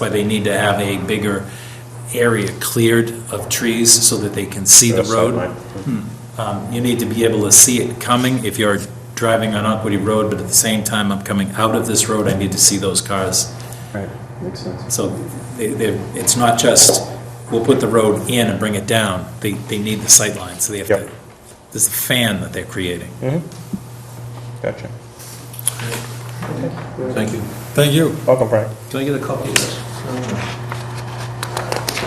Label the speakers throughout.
Speaker 1: why they need to have a bigger area cleared of trees so that they can see the
Speaker 2: That's not
Speaker 1: road.
Speaker 2: mine.
Speaker 1: Um, You need to be able to see it coming if you're driving on Aquity Road, but at the same time, I'm coming out of this road, I need to see those cars.
Speaker 2: Right, makes sense.
Speaker 1: So they, they, it's not just, we'll put the road in and bring it down, they, they need the sight line, so they have to,
Speaker 2: Yep.
Speaker 1: there's a fan that they're creating.
Speaker 2: Gotcha.
Speaker 3: Thank you.
Speaker 1: Thank you.
Speaker 2: Welcome, Frank.
Speaker 3: Can I get a copy of this?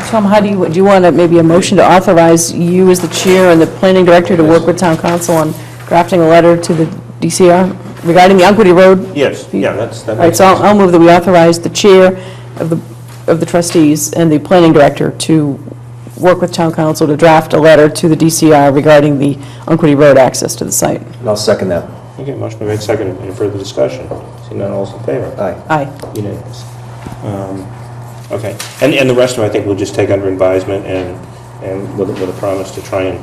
Speaker 4: Tom, how do you, do you want to, maybe a motion to authorize you as the chair and the planning director to work with town council on drafting a letter to the DCR regarding the Unquity Road?
Speaker 2: Yes, yeah, that's, that
Speaker 4: All right,
Speaker 2: makes
Speaker 4: so I'll
Speaker 2: sense.
Speaker 4: I'll move that we authorize the chair of the, of the trustees and the planning director to work with town council to draft a letter to the DCR regarding the Unquity Road access to the site.
Speaker 5: I'll second that.
Speaker 2: Okay, motion been made, seconded. Any further discussion? Seeing none, all's in favor?
Speaker 5: Aye.
Speaker 4: Aye.
Speaker 2: Unanimous. Um, Okay, and, and the rest of it, I think we'll just take under advisement and, and with, with a promise to try and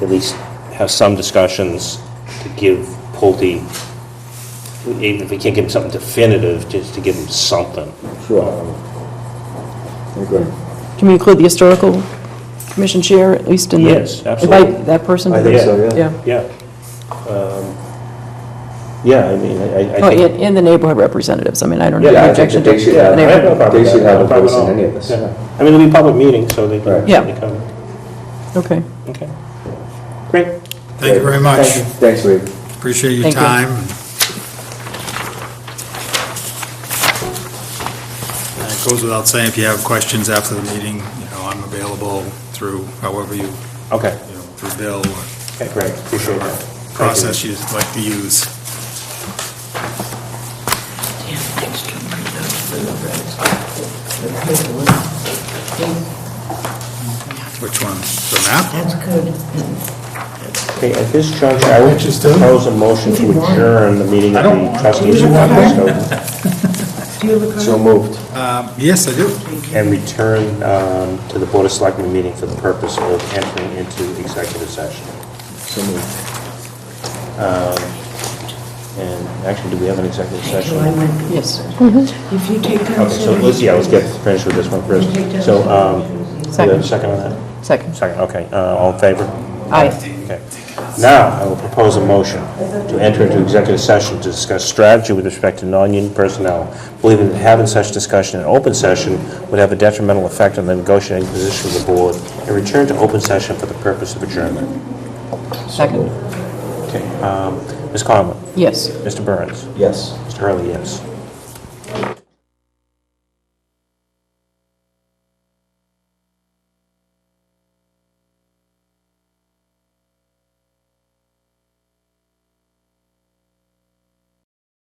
Speaker 2: at least have some discussions to give Pulte, even if we can't give him something definitive, just to give him something.
Speaker 5: Sure. Agree.
Speaker 4: Can we include the historical commission chair, at least in the...
Speaker 2: Yes, absolutely.
Speaker 4: Invite that person?
Speaker 5: I think so, yeah.
Speaker 4: Yeah.
Speaker 2: Yeah. Um, Yeah, I mean, I, I
Speaker 4: Oh,
Speaker 2: think...
Speaker 4: and and the neighborhood representatives, I mean, I don't have
Speaker 5: Yeah,
Speaker 4: any
Speaker 5: I think
Speaker 4: objection
Speaker 5: that
Speaker 4: to...
Speaker 5: they should
Speaker 2: Yeah,
Speaker 4: the
Speaker 5: have,
Speaker 2: I have no
Speaker 4: neighborhood.
Speaker 2: problem
Speaker 5: they
Speaker 2: with
Speaker 5: should
Speaker 2: that,
Speaker 5: have
Speaker 2: no
Speaker 5: a
Speaker 2: problem
Speaker 5: voice
Speaker 2: at
Speaker 5: in
Speaker 2: all.
Speaker 5: any of this.
Speaker 2: Yeah. I mean, it'll be a public meeting, so they can,
Speaker 5: Right.
Speaker 4: Yeah.
Speaker 2: they come.
Speaker 4: Okay.
Speaker 2: Okay. Great.
Speaker 6: Thank you very much.
Speaker 5: Thank you. Thanks, Reed.
Speaker 6: Appreciate your
Speaker 4: Thank you.
Speaker 6: time. And It goes without saying, if you have questions after the meeting, you know, I'm available through however you, you
Speaker 2: Okay.
Speaker 6: know, through Bill, or
Speaker 2: Okay, great. Appreciate that. Thank you.
Speaker 6: process you'd like to use. Which one? The map?
Speaker 2: Okay, at this juncture, I would
Speaker 7: Just do.
Speaker 2: propose a motion to adjourn the meeting of the trustees of Westminster
Speaker 5: So moved.
Speaker 6: Um, Yes, I do.
Speaker 2: and return um, to the Board of Selectmen meeting for the purpose of entering into executive session. Um,
Speaker 5: So moved.
Speaker 2: And actually, do we have an executive
Speaker 8: Thank you,
Speaker 2: session?
Speaker 8: I went.
Speaker 4: Yes.
Speaker 8: If you take down.
Speaker 2: Okay, so let's, yeah, let's get finished with this one first. So, um, do we have a second on that?
Speaker 4: Second.
Speaker 2: Second, okay, uh, all in favor?
Speaker 4: Aye.
Speaker 2: Okay. Now, I will propose a motion to enter into executive session to discuss strategy with respect to non-union personnel, believing that having such discussion in open session would have a detrimental effect on the negotiating position of the board, and return to open session for the purpose of adjournment.
Speaker 4: Second.
Speaker 2: Okay, um, Ms. Conlon?
Speaker 4: Yes.
Speaker 2: Mr. Burns?
Speaker 5: Yes.
Speaker 2: Mr. Hurley, yes.